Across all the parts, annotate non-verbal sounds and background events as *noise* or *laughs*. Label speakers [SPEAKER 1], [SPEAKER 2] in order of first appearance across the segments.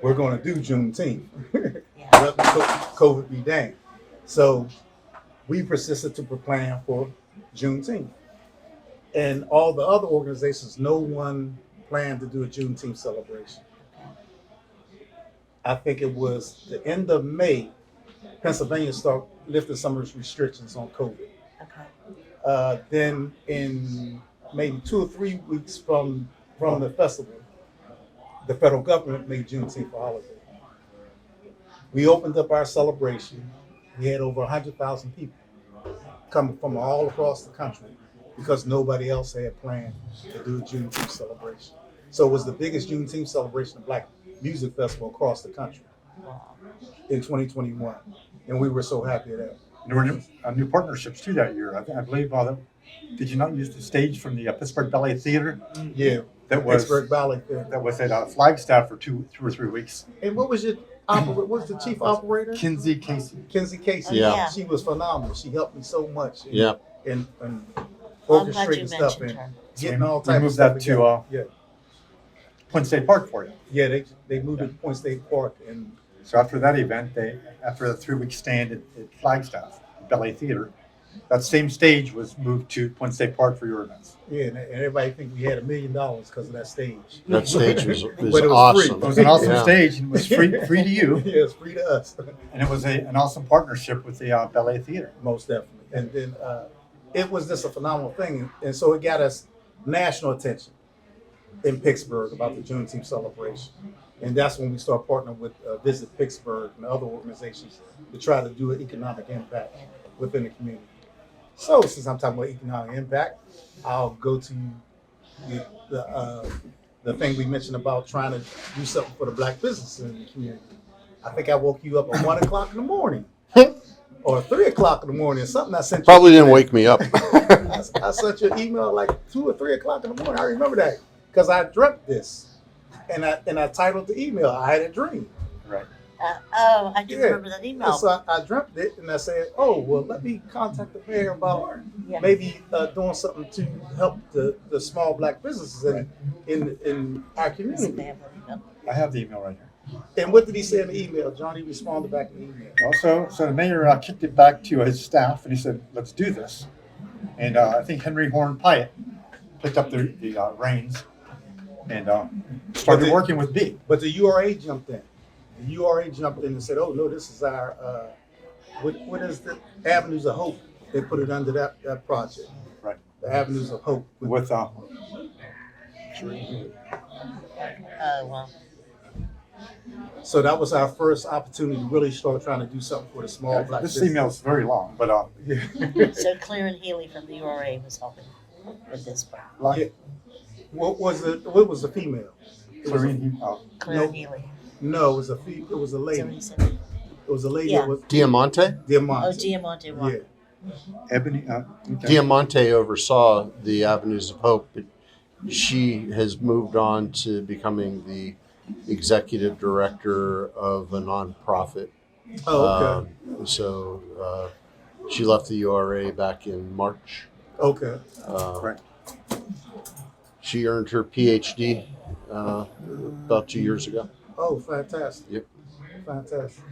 [SPEAKER 1] we're going to do Juneteenth. *laughs*
[SPEAKER 2] Yeah.
[SPEAKER 1] Let the co- COVID be dang. So we persisted to plan for Juneteenth. And all the other organizations, no one planned to do a Juneteenth celebration. I think it was the end of May, Pennsylvania started lifting some of its restrictions on COVID.
[SPEAKER 2] Okay.
[SPEAKER 1] Uh, then in maybe two or three weeks from from the festival, the federal government made Juneteenth a holiday. We opened up our celebration. We had over 100,000 people coming from all across the country because nobody else had planned to do a Juneteenth celebration. So it was the biggest Juneteenth celebration of Black music festival across the country
[SPEAKER 2] Wow.
[SPEAKER 1] in 2021. And we were so happy that.
[SPEAKER 3] There were new, uh, new partnerships too that year. I, think- I believe, uh, that- did you not use the stage from the uh, Pittsburgh Ballet Theater
[SPEAKER 1] Yeah,
[SPEAKER 3] Mm. that was
[SPEAKER 1] Pittsburgh Ballet. Theater.
[SPEAKER 3] that was at uh, Flagstaff for two two or three weeks?
[SPEAKER 1] And what was your oper- what was the chief operator?
[SPEAKER 3] Kinsey Casey.
[SPEAKER 1] Kenzie Casey.
[SPEAKER 4] Yeah.
[SPEAKER 2] Yeah.
[SPEAKER 1] She was phenomenal. She helped me so much. in-
[SPEAKER 4] Yeah.
[SPEAKER 1] In, in
[SPEAKER 2] I'm glad you
[SPEAKER 1] orchestrating stuff
[SPEAKER 2] mentioned
[SPEAKER 1] and
[SPEAKER 2] her.
[SPEAKER 1] getting all
[SPEAKER 3] We
[SPEAKER 1] types of
[SPEAKER 3] moved
[SPEAKER 1] stuff
[SPEAKER 3] that to,
[SPEAKER 1] together.
[SPEAKER 3] uh,
[SPEAKER 1] yeah.
[SPEAKER 3] Point State Park for you.
[SPEAKER 1] Yeah. They they moved it to Point State Park and
[SPEAKER 3] So after that event, they after the three week stand at, at Flagstaff Ballet Theater, that same stage was moved to Point State Park for your events.
[SPEAKER 1] yeah, and, and everybody think we had a million dollars because of that stage.
[SPEAKER 4] That
[SPEAKER 1] *laughs*
[SPEAKER 4] stage was,
[SPEAKER 1] But it
[SPEAKER 4] was
[SPEAKER 1] was free.
[SPEAKER 4] awesome.
[SPEAKER 3] It was
[SPEAKER 1] *laughs*
[SPEAKER 3] an awesome
[SPEAKER 4] Yeah.
[SPEAKER 3] stage and was free free to you,
[SPEAKER 1] yeah, it's free to us.
[SPEAKER 3] and it was a, an awesome partnership with the uh, Ballet Theater.
[SPEAKER 1] Most definitely. And then uh, it was just a phenomenal thing. And, and so it got us national attention in Pittsburgh about the Juneteenth celebration. And that's when we start partnering with uh, Visit Pittsburgh and other organizations to try to do an economic impact within the community. So since I'm talking about economic impact, I'll go to the, the, uh, the thing we mentioned about trying to do something for the black businesses in the community. I think I woke you up at one o'clock in the
[SPEAKER 4] *laughs*
[SPEAKER 1] morning or three o'clock in the morning. Something I sent you
[SPEAKER 4] Probably didn't wake me up.
[SPEAKER 1] I, I sent you an email like two or three o'clock in the morning. I remember that because I dreamt this, and I and I titled the email. I had a dream,
[SPEAKER 3] Right.
[SPEAKER 2] Uh, oh, I do
[SPEAKER 1] Yeah. uh,
[SPEAKER 2] remember that email.
[SPEAKER 1] and so I, I dreamt it, and I said, "Oh well, let me contact the mayor about
[SPEAKER 2] yeah.
[SPEAKER 1] maybe uh, doing something to help the, the small black businesses in, in in our
[SPEAKER 2] So they
[SPEAKER 1] community."
[SPEAKER 2] have that email.
[SPEAKER 3] I have the email right here.
[SPEAKER 1] And what did he say in the email? Johnny responded back in the email.
[SPEAKER 3] Also, so the mayor uh, kicked it back to his staff, and he said, "Let's do this." And uh, I think Henry Horn Pyatt picked up the, the uh, reins and uh, started
[SPEAKER 1] But the-
[SPEAKER 3] working with B.
[SPEAKER 1] But the URA jumped in. The URA jumped in and said, "Oh no, this is our uh, what, what is the Avenues of Hope?" They put it under that, that project.
[SPEAKER 3] Right.
[SPEAKER 1] The Avenues of Hope.
[SPEAKER 3] with uh,
[SPEAKER 1] *laughs*
[SPEAKER 2] Oh, well.
[SPEAKER 1] So that was our first opportunity to really start trying to do something for the small black.
[SPEAKER 3] this
[SPEAKER 1] business.
[SPEAKER 3] email is very long, but uh,
[SPEAKER 1] Yeah.
[SPEAKER 2] So Claire and Healy from the URA was helping with this part.
[SPEAKER 3] like
[SPEAKER 1] Yeah. what was it? What was the female? It was a,
[SPEAKER 3] Clarine, he, uh,
[SPEAKER 2] Claire
[SPEAKER 1] Nope.
[SPEAKER 2] and Healy.
[SPEAKER 1] no, it was a fe- it was a
[SPEAKER 2] So
[SPEAKER 1] lady.
[SPEAKER 2] he said,
[SPEAKER 1] It was a lady.
[SPEAKER 2] Yeah.
[SPEAKER 1] It was
[SPEAKER 4] Diamante?
[SPEAKER 2] oh,
[SPEAKER 1] Diamante.
[SPEAKER 2] Diamante won.
[SPEAKER 1] yeah.
[SPEAKER 3] Ebony, uh, okay.
[SPEAKER 4] Diamante oversaw the Avenues of Hope, but she has moved on to becoming the executive director of a nonprofit.
[SPEAKER 1] Oh, okay.
[SPEAKER 4] Um, so uh, she left the URA back in March.
[SPEAKER 1] okay.
[SPEAKER 4] Uh,
[SPEAKER 3] Correct.
[SPEAKER 4] She earned her PhD uh, about two years ago.
[SPEAKER 1] Oh, fantastic.
[SPEAKER 4] Yep.
[SPEAKER 1] Fantastic.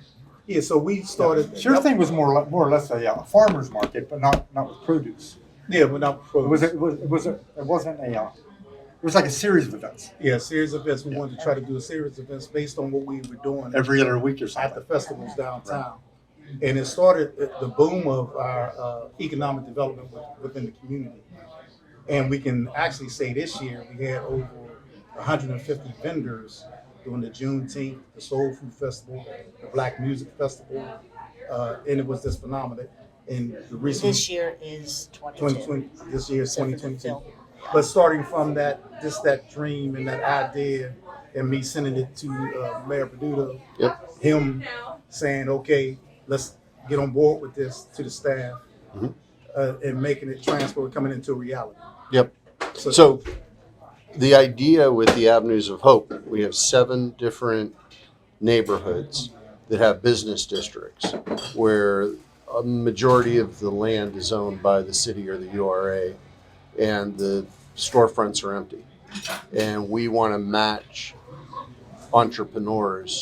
[SPEAKER 1] Yeah. So we started.
[SPEAKER 3] Sure thing was more le- more or less a uh, farmer's market, but not not with produce.
[SPEAKER 1] Yeah, but not
[SPEAKER 3] It was a, it was it was a, it wasn't a uh, it was like a series of events
[SPEAKER 1] Yeah, series of events. We wanted to try to do a series of events based on what we were doing
[SPEAKER 3] every other week or
[SPEAKER 1] at the
[SPEAKER 3] something.
[SPEAKER 1] festivals downtown. And it started at the boom of our uh, economic development with- within the community. And we can actually say this year we had over 150 vendors during the Juneteenth, the Soul Food Festival, the Black Music Festival, uh, and it was just phenomenal. And the recent
[SPEAKER 2] This year is 22.
[SPEAKER 1] 2020, this year is
[SPEAKER 2] except for the
[SPEAKER 1] 2022.
[SPEAKER 2] film.
[SPEAKER 1] But starting from that, just that dream and that idea, and me sending it to uh, Mayor Peduto,
[SPEAKER 4] Yep.
[SPEAKER 1] him saying, "Okay, let's get on board with this," to the staff,
[SPEAKER 4] Mhm.
[SPEAKER 1] uh, and making it transport coming into reality.
[SPEAKER 4] Yep.
[SPEAKER 1] So,
[SPEAKER 4] So, the idea with the Avenues of Hope, we have seven different neighborhoods that have business districts where a majority of the land is owned by the city or the URA and the storefronts are empty. And we want to match entrepreneurs